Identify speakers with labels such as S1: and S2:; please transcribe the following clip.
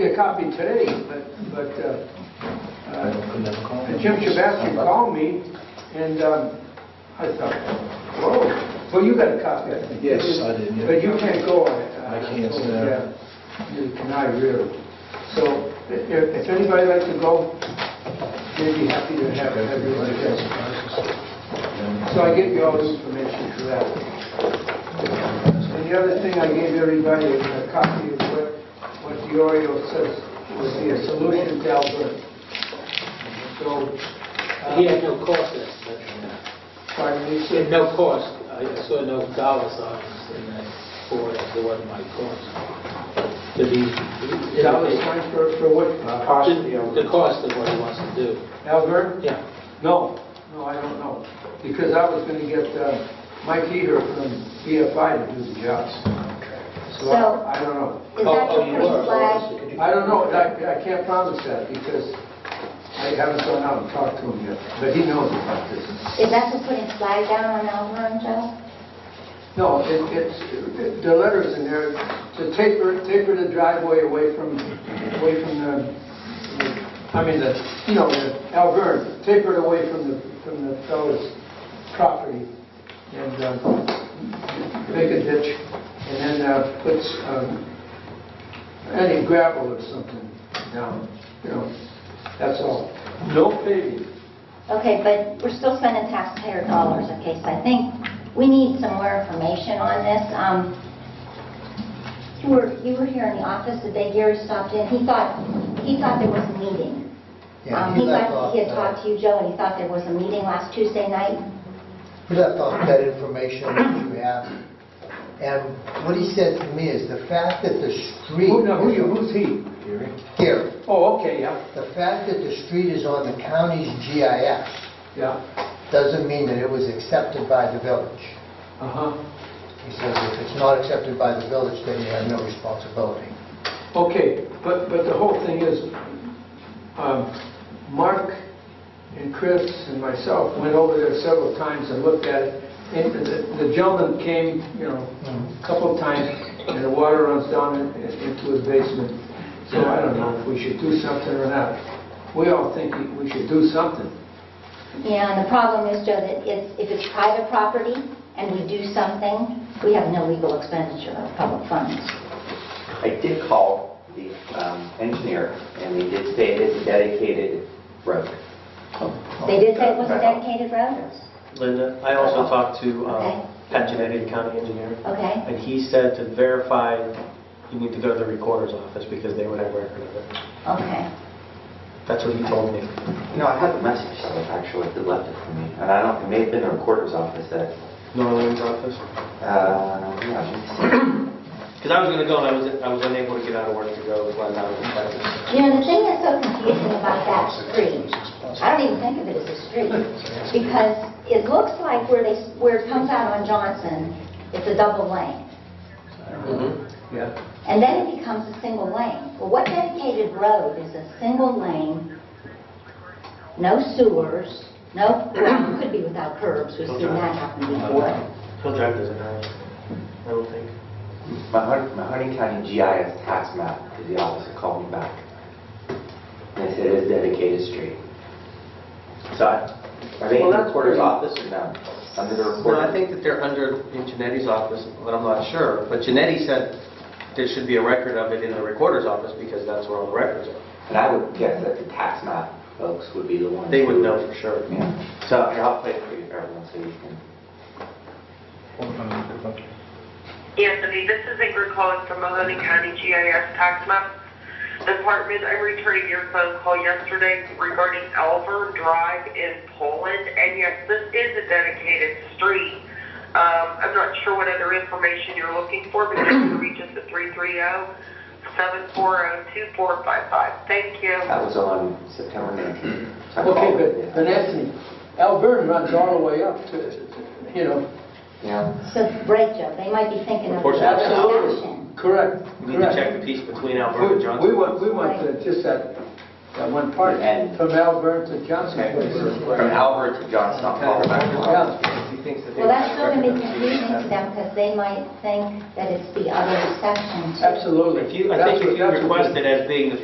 S1: get a copy today, but, but, uh, uh, and Jim Shabasky called me, and, um, I thought, whoa, well, you got a copy, I think.
S2: Yes, I did, yeah.
S1: But you can't go on it. Oh,
S2: I can't, no.
S1: Yeah, You cannot really. So, i- if, if anybody like to go, they'd be happy to have, have you like that. So I give you all this information for that. And the other thing, I gave everybody a copy of what, what Diorio says was the solution to Alberta. So, uh,
S3: He had no cost estimate.
S1: pardon me,
S3: He had
S1: sir?
S3: no cost, I saw no dollar signs in that for it, so what my cost. To be,
S1: Dollar sign for, for what?
S3: the cost of what he wants to do.
S1: Albert?
S3: Yeah,
S1: No, no, I don't know, because I was gonna get uh, Mike Eater from BFI to do the jobs. So
S4: So-
S1: I I don't know.
S4: Is
S3: Oh,
S4: that
S3: oh,
S4: your
S5: um,
S3: you
S4: first
S3: were.
S4: flag?
S1: I don't know, I I can't promise that, because I haven't gone out and talked to him yet, but he knows about this.
S4: Is that for putting flag down on Alvin, Joe?
S1: No, it- it's, it- the letter's in there, to taper, taper the driveway away from, away from the, I mean, the, you know, the Alvern, taper it away from the, from the fellow's property, and uh, make a ditch, and then uh, put um, any gravel or something down, you know, that's all. No paving.
S4: Okay, but we're still spending taxpayer dollars, okay, so I think we need some more information on this. Um, You were, you were here in the office the day Gary stopped in, he thought, he thought there was a meeting.
S5: Yeah,
S4: Um,
S5: he
S4: He
S5: left
S4: thought,
S5: off
S4: he had
S5: that.
S4: talked to you, Joe, and he thought there was a meeting last Tuesday night.
S5: We left off that information that you have, and what he said to me is the fact that the street...
S1: Who, no, who, you- who's he?
S5: Here,
S1: Oh, okay, yeah,
S5: the fact that the street is on the county's GIS
S1: yeah,
S5: doesn't mean that it was accepted by the village.
S1: uh-huh.
S5: He says if it's not accepted by the village, then you have no responsibility.
S1: Okay, but, but the whole thing is, um, Mark and Chris and myself went over there several times and looked at it. And the the gentleman came, you know, a couple of times, and the water runs down in- in- into his basement. So I don't know if we should do something or not. We all think we should do something.
S4: Yeah, and the problem is, Joe, that it's- if it's private property and we do something, we have no legal expenditure of public funds.
S6: I did call the um, engineer, and they did say it is a dedicated road.
S4: They did say it was a dedicated road,
S7: Linda, I
S1: Oh.
S7: also talked to
S4: Okay.
S7: um, Pat Genetti, the county engineer,
S4: okay?
S7: and he said to verify, you need to go to the recorder's office because they would have record of it.
S4: Okay.
S7: That's what he told me.
S6: You know, I have a message, so actually, they left it for me, and I don't, it may have been the recorder's office that,
S7: Norland's office?
S6: uh, yeah, let me see.
S7: Because I was going to go, and I was I was unable to get out of work to go, when I was in practice.
S4: You know, the thing that's so confusing about that street, I don't even think of it as a street, because it looks like where they, where it comes out on Johnson, it's a double lane,
S7: Mm-hmm.
S1: Yeah.
S4: and then it becomes a single lane. Well, what dedicated road is a single lane, no sewers, no, well, it could be without curbs, we've seen that happen before.
S7: Hill Drive doesn't have, it, I don't think.
S6: My Hun- my Hunting County GIS tax map, because the officer called me back. And they said it is dedicated street. So I, are they in the
S7: Well, that's
S6: recorder's
S7: pretty-
S6: office or no? Under the
S7: Well,
S6: recorder?
S7: I think that they're under in Genetti's office, but I'm not sure. But Genetti said there should be a record of it in the recorder's office because that's where all the records are.
S6: And I would guess that the tax map folks would be the ones.
S7: They would
S6: who-
S7: know for sure.
S6: Yeah. So here, I'll play it for you, everyone, so you can.
S8: Anthony, this is Ingrid calling from Mahoney County GIS Tax Map Department. I returned your phone call yesterday regarding Elver Drive in Poland, and yes, this is a dedicated street. Um, I'm not sure what other information you're looking for, but you can reach us at oh, 330-740-2455. Thank you.
S6: That was on September 19th. So I
S1: Okay,
S6: called it,
S1: but,
S6: yeah.
S1: but Anthony, Alvern runs all the way up to, you know,
S6: Yeah.
S4: So, right, Joe, they might be thinking of the
S7: Unfortunately.
S4: other
S1: absolutely,
S4: option.
S1: correct,
S7: You need to
S1: correct.
S7: check the piece between
S1: We
S7: Alberta and
S1: we
S7: Johnson.
S1: want, we want to- just that, that one part,
S6: The end.
S1: from Albert to Johnson
S6: Okay.
S1: Place.
S6: From Albert to Johnson, I'll call it back.
S1: Yeah,
S4: Well, that's still going to be confusing to them because they might think that it's the other section. too.
S1: absolutely.
S7: If you, I
S1: That's
S7: think
S1: what-
S7: if you
S1: that's what-
S7: request it as being the